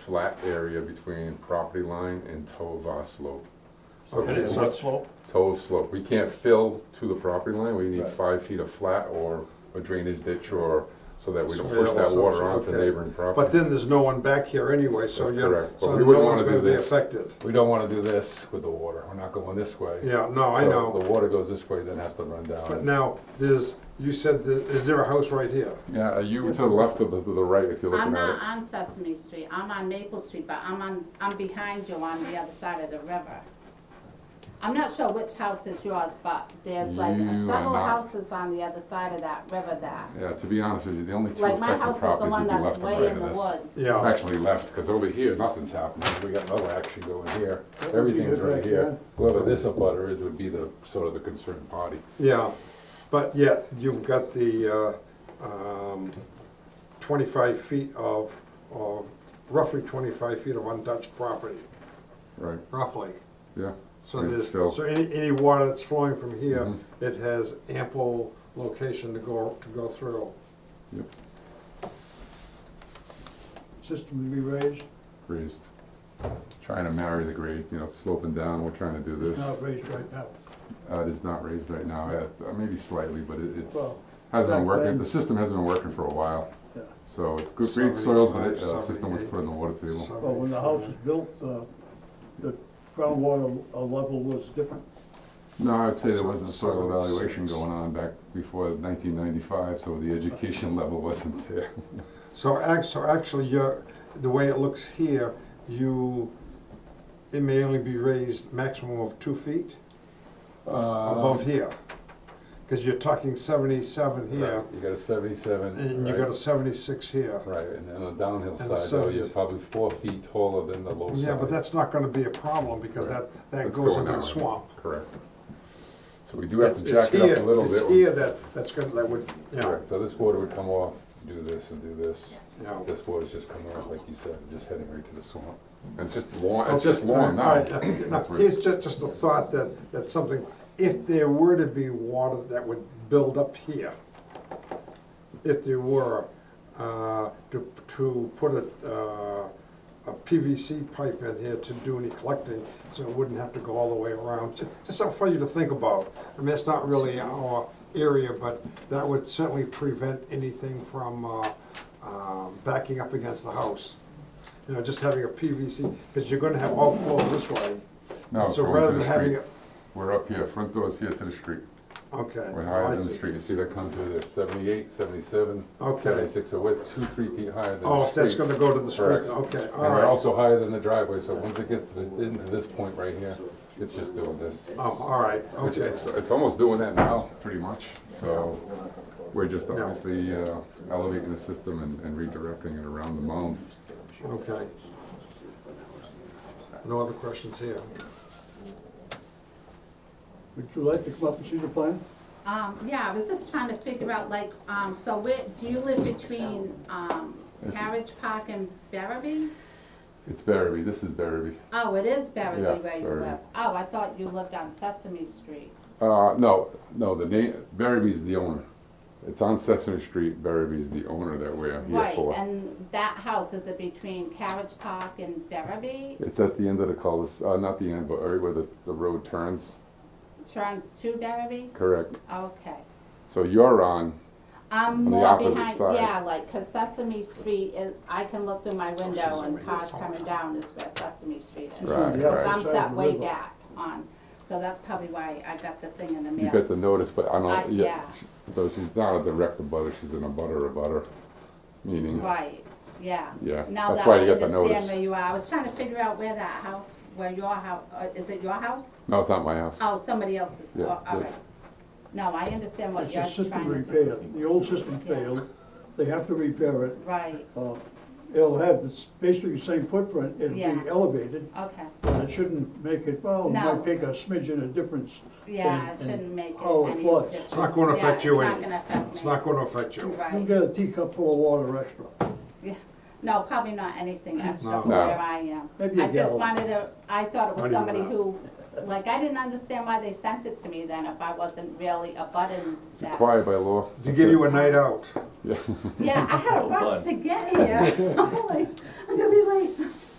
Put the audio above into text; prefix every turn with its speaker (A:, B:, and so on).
A: flat area between property line and toe of our slope. So
B: And it's not slope?
A: Toe of slope, we can't fill to the property line, we need
C: Right.
A: five feet of flat or a drainage ditch or, so that we don't
B: Swale
A: push
B: or
A: that
B: some
A: water
B: sort,
A: onto
B: okay.
A: neighboring property.
B: But then there's no one back here anyway, so
A: That's
B: you're,
A: correct. But
B: so
A: we
B: no
A: wouldn't
B: one's
A: wanna do
B: gonna be
A: this.
B: affected.
A: We don't wanna do this with the water, we're not going this way.
B: Yeah, no, I
A: So um,
B: know.
A: The water goes this way, then has to run down.
B: But now, there's, you said, that- is there a house right here?
A: Yeah, are you to the left of the, to the right if you're
D: I'm
A: looking at
D: not
A: it?
D: on Sesame Street, I'm on Maple Street, but I'm on, I'm behind you on the other side of the river. I'm not sure which house is yours, but there's like
A: You are
D: several
A: not-
D: houses on the other side of that river there.
A: Yeah, to be honest with you, the only two
D: Like my
A: affected
D: house is the
A: properties
D: one
A: would be
D: that's
A: left and
D: way
A: right
D: in the
A: of this.
D: woods.
B: Yeah,
A: Actually left, because over here, nothing's happening, we got another action going here,
C: That would be
A: everything's
C: good
A: right
C: back
A: here.
C: there.
A: Whoever this abutter is would be the, sort of the concerned party.
B: yeah. But yet, you've got the, uh, um, twenty-five feet of, of, roughly twenty-five feet of untouched property,
A: Right,
B: roughly.
A: yeah.
B: So
A: It's
B: there's,
A: still-
B: so any, any water that's flowing from here,
A: Mm-hmm.
B: it has ample location to go, to go through.
A: Yep,
C: System to be raised,
A: raised. Trying to marry the grade, you know, sloping down, we're trying to do this.
C: not raised right now.
A: Uh, it is not raised right now, yes, uh, maybe slightly, but it- it's,
C: Well,
A: hasn't been
C: back
A: working,
C: then-
A: the system hasn't been working for a while.
C: Yeah.
A: So, good great soils, but the uh, system was put in the water table.
C: Well, when the house was built, uh, the groundwater uh, level was different.
A: No, I'd say there wasn't soil
B: Seventy-six.
A: evaluation going on back before nineteen ninety-five, so the education level wasn't there.
B: So act, so actually, you're, the way it looks here, you, it may only be raised maximum of two feet
A: Uh,
B: above here. Cause you're talking seventy-seven here,
A: You got a seventy-seven.
B: and you
A: right?
B: got a seventy-six here.
A: Right, and then on the downhill
B: And a
A: side, though, you're
B: 70.
A: probably four feet taller than the low side.
B: Yeah, but that's not gonna be a problem, because that, that
A: That's
B: goes
A: going
B: into the
A: that way.
B: swamp.
A: Correct. So we do have to
B: It's- it's
A: jack it up a
B: here-
A: little bit.
B: It's here that, that's gonna, that would, you know,
A: Correct, so this water would come off, do this and do this.
B: you know.
A: This water's just coming off, like you said, just heading right to the swamp. And It's just long, it's
B: Okay,
A: just long
B: all
A: now.
B: right, all right.
A: That's where-
B: Here's just, just a thought that, that something, if there were to be water that would build up here, if there were, uh, to, to put a, uh, a PVC pipe in here to do any collecting, so it wouldn't have to go all the way around, Ju- just something for you to think about. I mean, it's not really our area, but that would certainly prevent anything from, uh, um, backing up against the house. You know, just having a PVC, because you're gonna have outflow this way.
A: No, it's
B: So
A: going
B: rather
A: to the
B: than having
A: street. We're up here, front door's here to the street.
B: Okay.
A: We're
B: oh, I
A: higher than the
B: see.
A: street, you see that come through there, seventy-eight, seventy-seven,
B: Okay.
A: seventy-six, so we're two, three feet higher than the street.
B: Oh, if that's gonna go to the street,
A: Correct.
B: okay,
A: And
B: all
A: we're
B: right.
A: also higher than the driveway, so once it gets to the, into this point right here, it's just doing this.
B: Oh, all right,
A: Which
B: okay.
A: it's, it's almost doing that now, pretty much, so we're just
B: Yeah.
A: obviously uh, elevating the system and and redirecting it around the mound.
B: Okay. No other questions here?
C: Would you like to come up and see the plan?
D: Um, yeah, I was just trying to figure out like, um, so where, do you live between, um, Carriage Park and Barrowby?
A: It's Barrowby, this is Barrowby.
D: Oh, it is Barrowby
A: Yeah,
D: where you
A: Barrowby.
D: live. Oh, I thought you lived on Sesame Street.
A: Uh, no, no, the name, Barrowby's the owner. It's on Sesame Street, Barrowby's the owner that we're here
D: Right,
A: for.
D: and that house, is it between Carriage Park and Barrowby?
A: It's at the end of the cul-de-sac, uh, not the end, but right where the, the road turns,
D: Turns to Barrowby?
A: correct?
D: Okay.
A: So you're on,
D: I'm
A: the
D: more
A: opposite
D: behind,
A: side.
D: yeah, like, cause Sesame Street is, I can look through my window
B: over
D: and
B: here
D: cars
B: somewhere.
D: coming down is where Sesame Street is.
C: It's on the
A: Right,
C: opposite
D: I'm
C: side
D: set
C: of the
D: way
C: river.
D: back on, so that's probably why I got the thing in the
A: you got
D: mail.
A: the notice, but I
D: I-
A: don't, yeah.
D: Uh, yeah.
A: So she's not a direct abutter, she's an abutter abutter, meaning,
D: Right, yeah.
A: Yeah,
D: Now
A: that's
D: that
A: why
D: I
A: you got the notice.
D: understand where you are, I was trying to figure out where that house, where your house, is it your house?
A: no, it's not my house.
D: Oh, somebody else's,
A: Yeah,
D: oh, all
A: yeah.
D: right. No, I understand what
C: It's a
D: you're
C: system
D: trying to
C: repair.
D: do.
C: The old system failed. They have to repair it.
D: Right,
C: Uh, It'll have, it's basically the same footprint. It'll
D: Yeah.
C: be elevated,
D: okay,
C: but it shouldn't make it, well, it
D: No.
C: might make a smidgen of difference.
D: yeah, it
C: And-
D: shouldn't
C: and
D: make it
C: how it
D: any
C: floods.
D: difference.
B: It's not gonna
D: Yeah,
B: affect you
D: It's
B: any-
D: not gonna affect me.
B: It's not gonna affect you.
C: You'll
D: Right,
C: get a teacup full of water extra.
D: yeah, no, probably not anything extra
B: No.
D: from
A: No.
D: where I am.
C: Maybe a
D: I just
C: gallon.
D: wanted to, I thought it
B: Not even
D: was somebody
B: that.
D: who, like, I didn't understand why they sent it to me then if I wasn't really abutting that.
A: Required by law.
B: To give you a night out.
A: Yeah, Oh,
D: Yeah, I had a rush to get here. I'm like, I'm gonna be late.